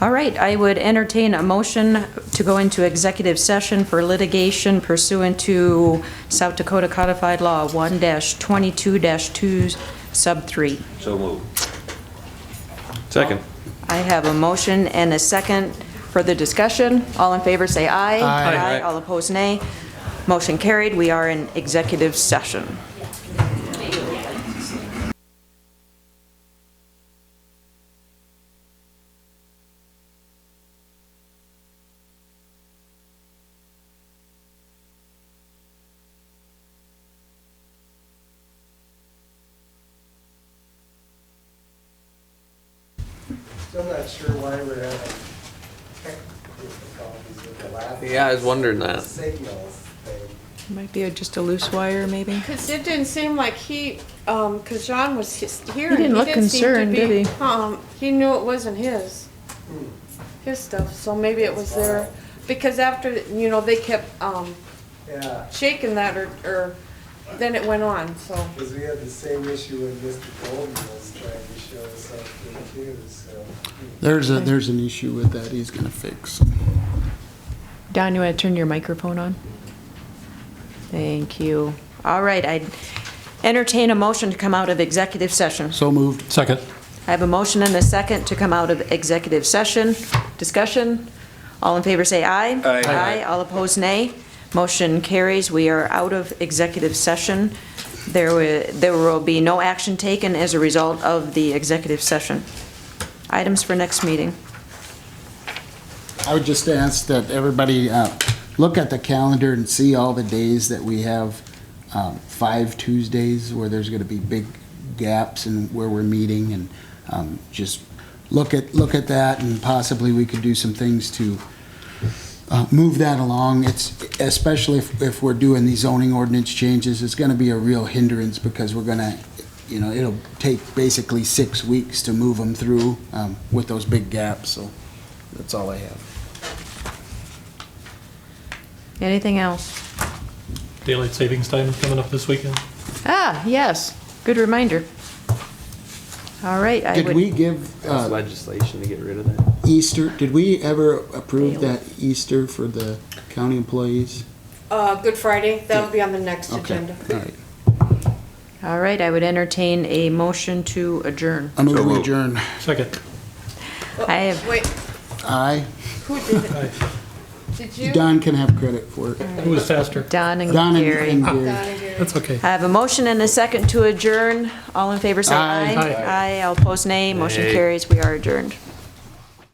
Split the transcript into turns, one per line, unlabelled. All right, I would entertain a motion to go into executive session for litigation pursuant to South Dakota Codified Law 1-22-2 sub 3.
So move. Second.
I have a motion and a second. Further discussion? All in favor, say aye.
Aye.
All opposed, nay. Motion carried. We are in executive session.
Still not sure why we're having tech difficulties with the last
Yeah, I was wondering that.
signals thing.
Might be just a loose wire, maybe?
Because it didn't seem like he, um 'cause because John was just here. and
didn't look
seem to
concerned,
be-
did
Um, he knew it wasn't his, his stuff, so maybe it was there. Because after, you know, they kept, um,
Yeah,
shaking that or, or, then it went on, so.
because we had the same issue when Mr. Golden was trying to show us something too, so. hmm.
There's a, there's an issue with that he's gonna fix.
Don, you want to turn your microphone on? Thank you. All right, I entertain a motion to come out of executive session.
So moved. Second.
I have a motion and a second to come out of executive session. Discussion? All in favor, say aye.
Aye.
Aye, all opposed, nay. Motion carries. We are out of executive session. There wi- there will be no action taken as a result of the executive session. Items for next meeting.
I would just ask that everybody, uh, look at the calendar and see all the days that we have, um, five Tuesdays where there's gonna be big gaps in where we're meeting and, um, just look at, look at that and possibly we could do some things to, uh, move that along. It's, especially if, if we're doing these zoning ordinance changes, it's gonna be a real hindrance because we're gonna, you know, it'll take basically six weeks to move them through, um, with those big gaps, so that's all I have.
Anything else?
Daylight savings time coming up this weekend.
Ah, yes, good reminder. All right, I would.
Did we give
That's
uh,
legislation to get rid of that.
Easter, did we ever approve that Easter for the county employees?
Uh, Good Friday, that'll be on the next
Okay,
agenda.
all right.
All right, I would entertain a motion to adjourn.
I move to adjourn.
Second.
I have-
Wait,
Aye.
who did it?
Aye.
Did you?
Don can have credit for it.
Who was faster?
Don and
Don and-
Gary. Oh,
and Gary.
Donna Gary.
That's okay.
I have a motion and a second to adjourn. All in favor, say
Aye.
aye. Aye, all opposed, nay. Motion
Nay.
carries. We are adjourned.